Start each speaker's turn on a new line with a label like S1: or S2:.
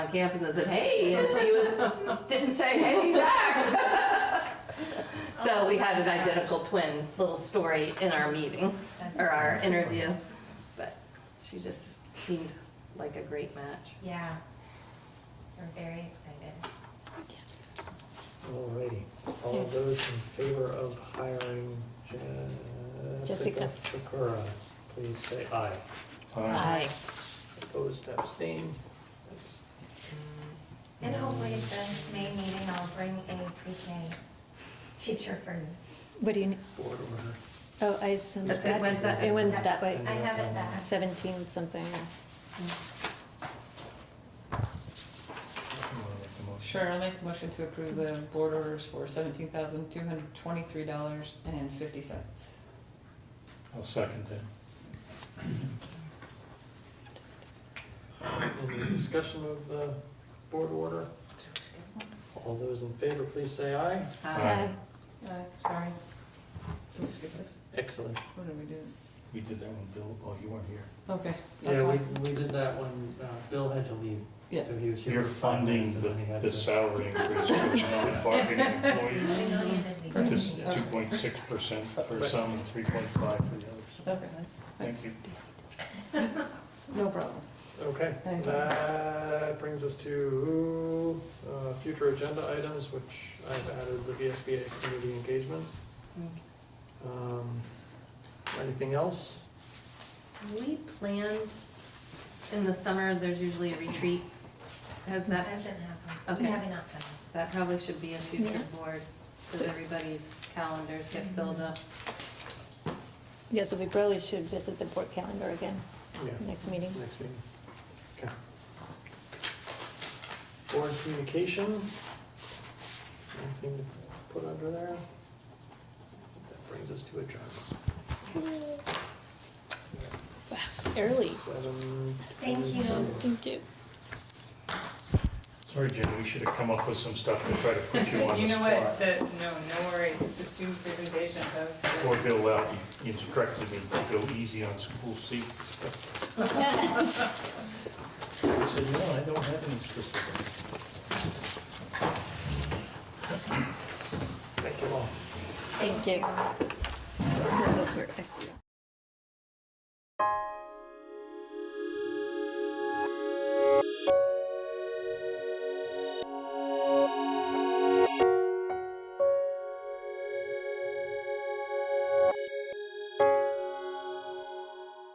S1: campus and said, hey, and she was, didn't say, hey, back. So we had an identical twin little story in our meeting, or our interview, but she just seemed like a great match.
S2: Yeah. We're very excited.
S3: Alrighty, all those in favor of hiring
S4: Jessica.
S3: Jessica Chikora, please say aye.
S4: Aye.
S3: Opposed, abstained? That's-
S2: And hopefully at the May meeting, I'll bring a pre-K teacher for you.
S4: What do you, need?
S3: Board order.
S4: oh, I, sent
S1: It- it went that-
S4: that- it went that way,
S2: I have it back.
S4: seventeen something.
S5: Sure, I'll make a motion to approve the board orders for seventeen thousand two hundred twenty-three dollars and fifty cents.
S6: I'll second that.
S3: Any discussion of the board order? All those in favor, please say aye.
S1: Uh,
S6: Aye.
S5: Sorry. Can we skip this?
S3: Excellent.
S5: What did we do?
S6: We did that one, Bill, oh, you weren't here.
S5: Okay, that's
S3: Yeah, we,
S5: fine.
S3: we did that when uh, Bill had to leave.
S5: Yeah.
S3: So he was here.
S6: You're
S3: for five
S6: funding
S3: minutes and then he
S6: the,
S3: had
S6: the
S3: to-
S6: salary increase for non-bargaining employees,
S2: I know you did.
S5: Correct.
S6: just two point six percent for some and three point five for the others.
S5: Okay,
S6: Thank you.
S5: no problem.
S3: Okay,
S5: Thank you.
S3: that brings us to uh, future agenda items, which I've added the VSBA community engagement. Um, Anything else?
S1: We planned in the summer, there's usually a retreat. Has that,
S2: That doesn't happen.
S1: Okay.
S2: We have enough time.
S1: that probably should be a future
S4: Yeah.
S1: board, because everybody's calendars get filled up.
S4: Yeah, so we probably should visit the board calendar again,
S3: Yeah,
S4: next meeting.
S3: next meeting. Okay. Board communication? Anything to put under there? That brings us to adjournment.
S4: Early.
S3: Seven.
S2: Thank you.
S3: 22.
S4: Thank you.
S6: Sorry, Jim, we should have come up with some stuff to try to put you on
S7: You
S6: the
S7: know what,
S6: spot.
S7: the, no, no worries, the student presentation, that was good.
S6: Poor Bill Loughton instructed me to go easy on school seat stuff. I said, no, I don't have any specific.
S3: Thank you all.
S4: Thank you. Those were